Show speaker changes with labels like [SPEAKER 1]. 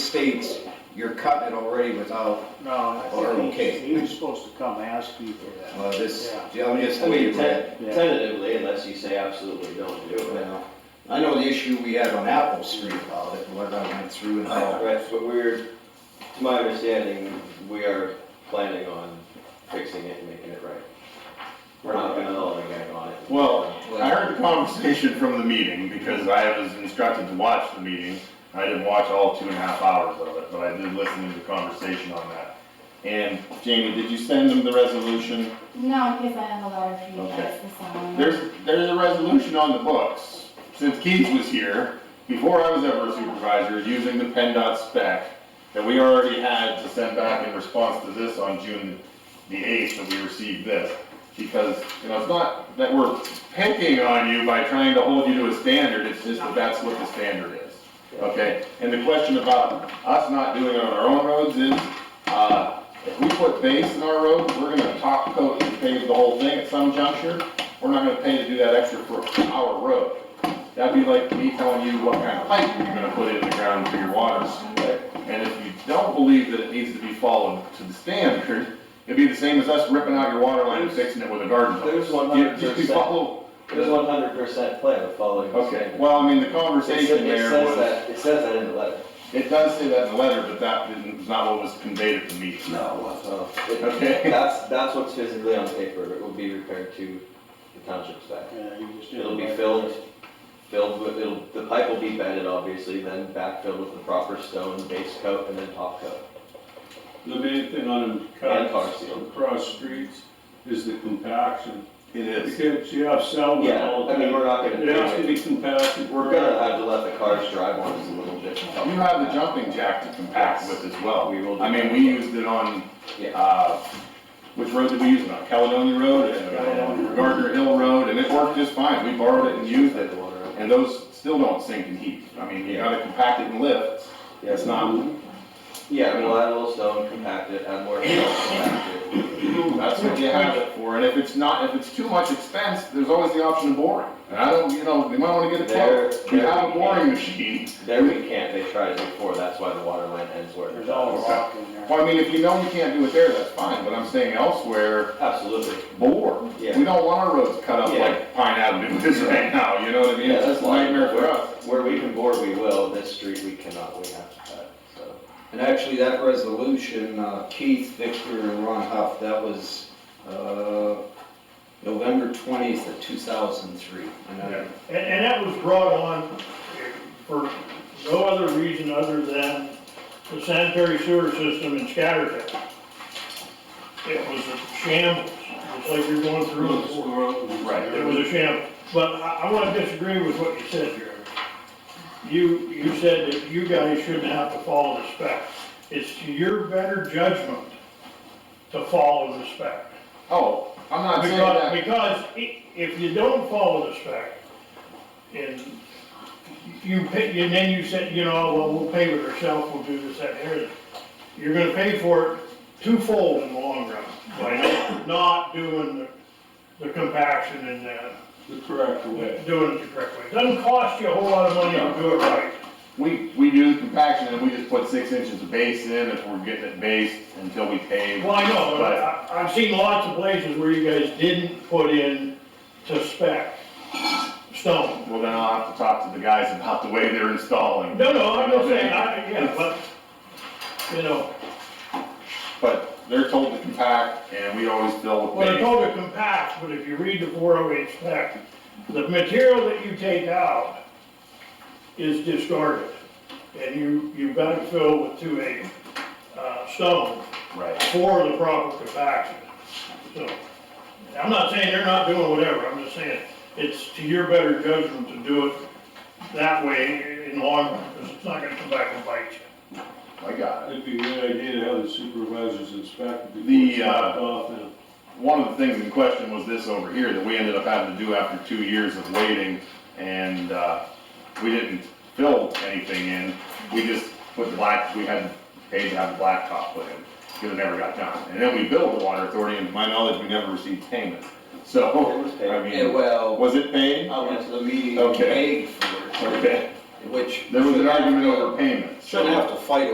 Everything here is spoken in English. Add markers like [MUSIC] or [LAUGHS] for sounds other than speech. [SPEAKER 1] states, you're cutting it already without,
[SPEAKER 2] No, I
[SPEAKER 1] Or
[SPEAKER 2] think
[SPEAKER 1] okay.
[SPEAKER 2] he, he was supposed to come ask you for that.
[SPEAKER 1] well, uh, this,
[SPEAKER 2] Yeah.
[SPEAKER 1] I'm just
[SPEAKER 3] I mean,
[SPEAKER 1] waiting for
[SPEAKER 3] te-
[SPEAKER 1] that.
[SPEAKER 2] Yeah.
[SPEAKER 3] tentatively, unless you say absolutely don't do it.
[SPEAKER 1] Well, I know the issue we had on Apple Street about it, what I went through and how,
[SPEAKER 3] Right,
[SPEAKER 4] oh.
[SPEAKER 3] but we're, to my understanding, we are planning on fixing it and making it right. We're not gonna hold a guy on it.
[SPEAKER 4] Well, I heard the conversation from the meeting because I was instructed to watch the meeting. I didn't watch all two and a half hours of it, but I did listen to the conversation on that. And Jamie, did you send them the resolution?
[SPEAKER 5] No, because I have a letter for you
[SPEAKER 4] Okay.
[SPEAKER 5] guys to sign.
[SPEAKER 4] There's, there's a resolution on the books. Since Keith was here, before I was ever a supervisor, using the PennDOT spec that we already had to send back in response to this on June the eighth that we received this. Because, you know, it's not that we're picking on you by trying to hold you to a standard, it's just that that's what the standard is. Okay, and the question about us not doing it on our own roads is, uh, if we put base in our roads, we're gonna top coat and pave the whole thing at some juncture. We're not gonna pay to do that extra for our road. That'd be like me telling you what kind of pipe you're gonna put in the ground for your water supply. And if you don't believe that it needs to be followed to the standard, it'd be the same as us ripping out your water line and fixing it with a garden
[SPEAKER 3] There's
[SPEAKER 4] hose. You- Just be
[SPEAKER 3] 100%.
[SPEAKER 4] follow,
[SPEAKER 3] There's one hundred percent plan of following the
[SPEAKER 4] okay,
[SPEAKER 3] standard.
[SPEAKER 4] well, I mean, the
[SPEAKER 3] It sa- it
[SPEAKER 4] conversation there was.
[SPEAKER 3] says that, it says that in the letter.
[SPEAKER 4] It does say that in the letter, but that didn't- was not what was conveyed at the meeting.
[SPEAKER 3] No.
[SPEAKER 4] Okay.
[SPEAKER 3] That's, that's what's physically on paper, it will be repaired to the township spec.
[SPEAKER 2] Yeah, he just didn't
[SPEAKER 3] It'll be
[SPEAKER 2] like-
[SPEAKER 3] filled, filled with, it'll, the pipe will be bedded, obviously, then backfilled with the proper stone base coat and then top coat.
[SPEAKER 6] The main thing on them
[SPEAKER 3] And tar
[SPEAKER 6] cuts
[SPEAKER 3] seal.
[SPEAKER 6] across streets is the compaction.
[SPEAKER 4] It
[SPEAKER 6] You
[SPEAKER 4] is.
[SPEAKER 6] can't, you have salvage
[SPEAKER 3] Yeah,
[SPEAKER 6] all the
[SPEAKER 3] I mean,
[SPEAKER 6] time.
[SPEAKER 3] we're not
[SPEAKER 6] It has to
[SPEAKER 3] gonna,
[SPEAKER 6] be compacted.
[SPEAKER 3] we're gonna have to let the cars drive on us a little bit.
[SPEAKER 4] You have the jumping jack to compact with as well.
[SPEAKER 3] We will do
[SPEAKER 4] I mean,
[SPEAKER 3] that.
[SPEAKER 4] we used it on,
[SPEAKER 3] Yeah,
[SPEAKER 4] uh, which road did we use it on? Caledonia Road and uh, Gardner Hill Road, and it worked just fine. We borrowed it and used it. And those still don't sink in heat. I mean, you gotta compact it and lift. It's not,
[SPEAKER 3] Yeah, we'll add a little stone, compact it, add more stone, compact it.
[SPEAKER 4] that's what you have it for. And if it's not, if it's too much expense, there's always the option of boring. And I don't, you know, we might wanna get a quote.
[SPEAKER 3] There-
[SPEAKER 4] We have a boring machine.
[SPEAKER 3] There we can't, they tried it before, that's why the water line ends where it
[SPEAKER 2] There's all
[SPEAKER 3] does.
[SPEAKER 2] rock in there.
[SPEAKER 4] Well, I mean, if you know you can't do it there, that's fine, but I'm saying elsewhere,
[SPEAKER 3] Absolutely.
[SPEAKER 4] more.
[SPEAKER 3] Yeah.
[SPEAKER 4] We don't want our roads cut up
[SPEAKER 3] Yeah.
[SPEAKER 4] like Pine Avenue is right now, you know what I mean?
[SPEAKER 3] Yeah,
[SPEAKER 4] It's
[SPEAKER 3] that's
[SPEAKER 4] just a nightmare for us.
[SPEAKER 3] Where we can bore, we will, this street we cannot, we have to cut, so.
[SPEAKER 1] And actually, that resolution, uh, Keith, Victor, and Ron Huff, that was, uh, November twentieth of two thousand three. And I,
[SPEAKER 7] And, and that was brought on for no other reason other than the sanitary sewer system in Scattertown. It was a shambles, it's like you're going through, it.
[SPEAKER 4] Right.
[SPEAKER 7] it was a shambles. But I, I wanna disagree with what you said, Jeremy. You, you said that you guys shouldn't have to follow the spec. It's to your better judgment to follow the spec.
[SPEAKER 4] Oh, I'm not saying
[SPEAKER 7] Because,
[SPEAKER 4] that,
[SPEAKER 7] because i- if you don't follow the spec, and you pay, and then you said, you know, well, we'll pay with ourselves, we'll do this, that, and everything. You're gonna pay for it twofold in the long run, by not doing the, the compaction and, uh,
[SPEAKER 6] The correct way.
[SPEAKER 7] doing it the correct way. Doesn't cost you a whole lot of money to do it right.
[SPEAKER 4] we, we do the compaction and we just put six inches of base in if we're getting it based until we pave.
[SPEAKER 7] Well, I know, but I, I've seen lots of places where you guys didn't put in to spec stone.
[SPEAKER 4] Well, then I'll have to talk to the guys about the way they're installing.
[SPEAKER 7] No, no, I'm not saying, I, yeah, but, you know,
[SPEAKER 4] But they're told to compact and we always fill with
[SPEAKER 7] well, it's
[SPEAKER 4] base.
[SPEAKER 7] all to compact, but if you read the four oh eight spec, the material that you take out is discarded, and you, you've got to fill with two eight, uh, stone
[SPEAKER 4] Right.
[SPEAKER 7] for the proper compaction, so. I'm not saying they're not doing whatever, I'm just saying, it's to your better judgment to do it that way in the long run, because it's not gonna come back and bite you.
[SPEAKER 4] I got it.
[SPEAKER 6] It'd be a good idea to have the supervisors inspect it before
[SPEAKER 4] The,
[SPEAKER 6] it's dropped
[SPEAKER 4] uh,
[SPEAKER 6] off and.
[SPEAKER 4] One of the things in question was this over here that we ended up having to do after two years of waiting and, uh, we didn't fill anything in. We just put black, we had paid to have the blacktop put in, because it never got done. And then we billed the water authority and to my knowledge, we never received payment. So,
[SPEAKER 3] was paid.
[SPEAKER 4] I
[SPEAKER 1] yeah,
[SPEAKER 4] mean,
[SPEAKER 1] well,
[SPEAKER 4] was it paid? [LAUGHS]
[SPEAKER 1] I went to the meeting and
[SPEAKER 4] Okay.
[SPEAKER 1] paid for it,
[SPEAKER 4] Okay,
[SPEAKER 1] which.
[SPEAKER 4] there was an argument over payments.
[SPEAKER 1] Shouldn't have to fight